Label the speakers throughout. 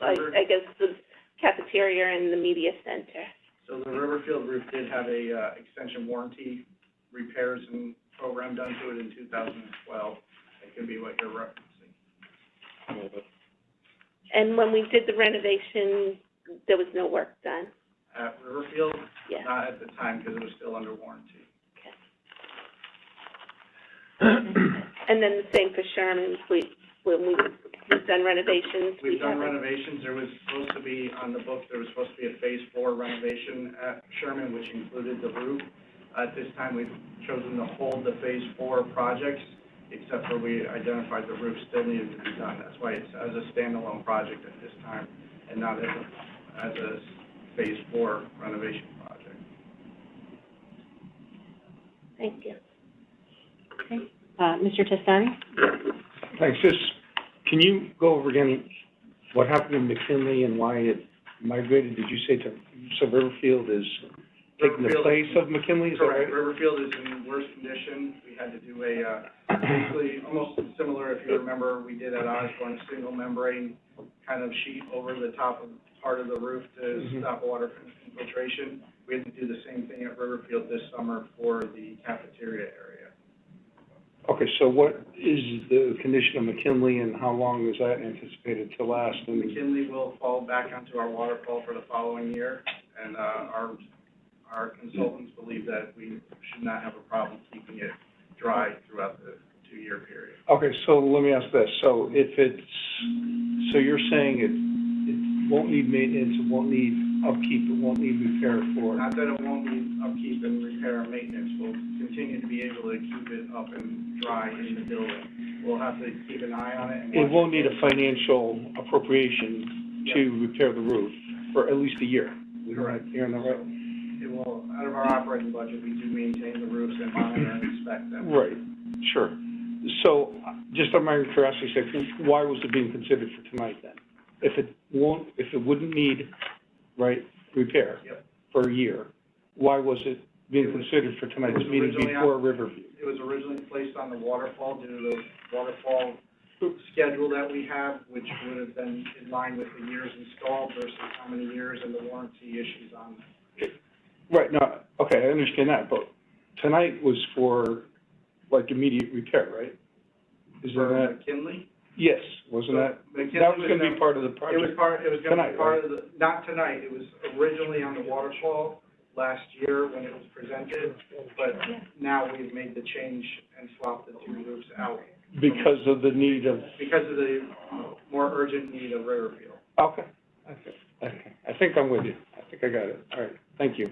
Speaker 1: I, I guess the cafeteria and the media center.
Speaker 2: So the Riverfield roof did have a, uh, extension warranty repairs and program done to it in two thousand and twelve. That could be what you're referencing.
Speaker 1: And when we did the renovation, there was no work done,
Speaker 2: At Riverfield,
Speaker 1: yeah.
Speaker 2: not at the time, because it was still under warranty.
Speaker 1: And then the same for Sherman's, we, when we, we've done renovations, we
Speaker 2: We've done
Speaker 1: haven't.
Speaker 2: renovations, there was supposed to be, on the book, there was supposed to be a phase four renovation at Sherman, which included the roof. At this time, we've chosen to hold the phase four projects, except for we identified the roof still needed to be done. That's why it's as a standalone project at this time, and not as a, as a phase four renovation project.
Speaker 1: Thank you.
Speaker 3: Uh, Mr. Testani?
Speaker 4: Thanks. Just, can you go over again what happened in McKinley and why it migrated? Did you say to, so Riverfield is taking the
Speaker 2: Riverfield-
Speaker 4: place of McKinley, is that right?
Speaker 2: Correct, Riverfield is in worse condition, we had to do a, uh, basically, almost similar, if you remember, we did at Osborne, a single membrane kind of sheet over the top of, part of the roof to
Speaker 4: Mhm.
Speaker 2: stop water from infiltration. We had to do the same thing at Riverfield this summer for the cafeteria area.
Speaker 4: Okay, so what is the condition of McKinley and how long is that anticipated to last? And
Speaker 2: McKinley will fall back onto our waterfall for the following year, and, uh, our, our consultants believe that we should not have a problem keeping it dry throughout the two-year period.
Speaker 4: Okay, so let me ask this, so if it's, so you're saying it, it won't need maintenance, it won't need upkeep, it won't need repair for,
Speaker 2: Not that it won't need upkeep and repair and maintenance, we'll continue to be able to keep it up and dry in the building. We'll have to keep an eye on it and.
Speaker 4: it
Speaker 2: watch
Speaker 4: won't need a financial appropriation to repair the roof for at least a year.
Speaker 2: Correct.
Speaker 4: You're in the right.
Speaker 2: It will, out of our operating budget, we do maintain the roofs and monitor and inspect them.
Speaker 4: Right, sure. So, uh, just on my own curiosity sake, why was it being considered for tonight then? If it won't, if it wouldn't need, right, repair
Speaker 2: Yep.
Speaker 4: for a year, why was it being
Speaker 2: It was-
Speaker 4: considered for
Speaker 2: it was
Speaker 4: tonight's meeting
Speaker 2: originally
Speaker 4: before Riverview?
Speaker 2: It was originally placed on the waterfall due to the waterfall schedule that we have, which would have been in line with the years installed versus how many years and the warranty issues on
Speaker 4: Right, no, okay, I understand that, but tonight was for, like, immediate repair, right? Isn't
Speaker 2: for
Speaker 4: that,
Speaker 2: McKinley.
Speaker 4: yes, wasn't that,
Speaker 2: McKinley
Speaker 4: that was gonna
Speaker 2: never-
Speaker 4: be part of the
Speaker 2: It was
Speaker 4: project?
Speaker 2: part, it was gonna be
Speaker 4: Tonight,
Speaker 2: part of the, not tonight, it was originally on the waterfall last year when it was presented, but now we've made the change and swapped the two roofs out
Speaker 4: Because of the need of
Speaker 2: because of the more urgent need of Riverfield.
Speaker 4: Okay. Okay. Okay. I think I'm with you. I think I got it. All right. Thank you.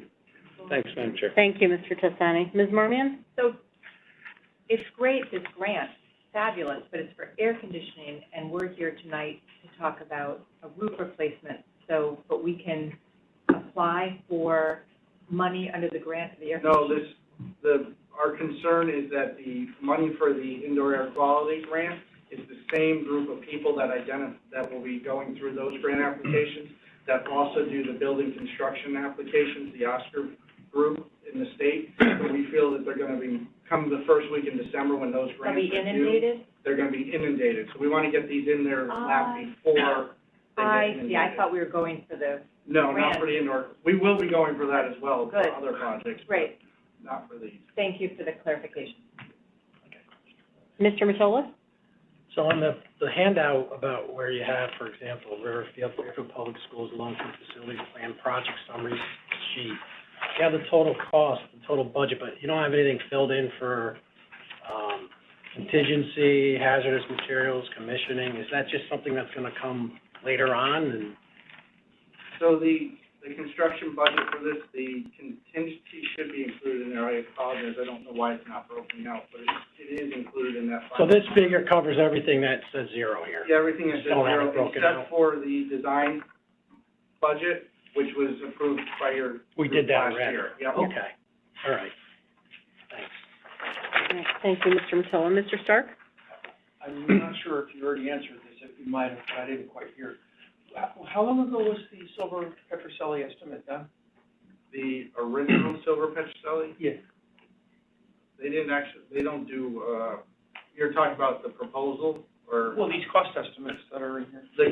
Speaker 4: Thanks, Madam Chair.
Speaker 3: Thank you, Mr. Testani. Ms. Marmion?
Speaker 5: So it's great, this grant, fabulous, but it's for air conditioning, and we're here tonight to talk about a roof replacement. So, but we can apply for money under the grant for the air
Speaker 2: No,
Speaker 5: conditioning.
Speaker 2: this, the, our concern is that the money for the indoor air quality grant is the same group of people that identif, that will be going through those grant applications, that also do the building construction applications, the Oscar group in the state. So we feel that they're gonna be, come the first week in December when those
Speaker 5: Are
Speaker 2: grants
Speaker 5: we
Speaker 2: are due,
Speaker 5: inundated?
Speaker 2: they're gonna be inundated. So we wanna get these in their lap
Speaker 5: Ah.
Speaker 2: before they get
Speaker 5: I
Speaker 2: inundated.
Speaker 5: see, I thought we were going for the,
Speaker 2: No, not
Speaker 5: grant.
Speaker 2: for the indoor, we will be going for that as well, for
Speaker 5: Good.
Speaker 2: other projects,
Speaker 5: great,
Speaker 2: not for these.
Speaker 5: thank you for the clarification.
Speaker 3: Mr. Matola?
Speaker 6: So on the, the handout about where you have, for example, Riverfield, Fairfield Public Schools, long-term facilities plan, project summary sheet, you have the total cost, the total budget, but you don't have anything filled in for, um, contingency, hazardous materials, commissioning, is that just something that's gonna come later on and?
Speaker 2: So the, the construction budget for this, the contingency should be included in there, I apologize, I don't know why it's not broken out, but it, it is included in that.
Speaker 6: So
Speaker 2: final-
Speaker 6: this figure covers everything that says zero here.
Speaker 2: Yeah, everything is just
Speaker 6: Don't have
Speaker 2: zero,
Speaker 6: it broken out.
Speaker 2: except for the design budget, which was approved by your
Speaker 6: We
Speaker 2: group
Speaker 6: did
Speaker 2: last
Speaker 6: that already.
Speaker 2: year. Yeah.
Speaker 6: Okay, all right, thanks.
Speaker 3: Thank you, Mr. Matola. Mr. Stark?
Speaker 7: I'm not sure if you already answered this, if you might have, I didn't quite hear. How, how long ago was the silver Petroselli estimate done?
Speaker 2: The original Silver Petroselli,
Speaker 7: Yeah.
Speaker 2: they didn't actually, they don't do, uh, you're talking about the proposal, or?
Speaker 7: Well, these cost estimates that are in here.
Speaker 2: The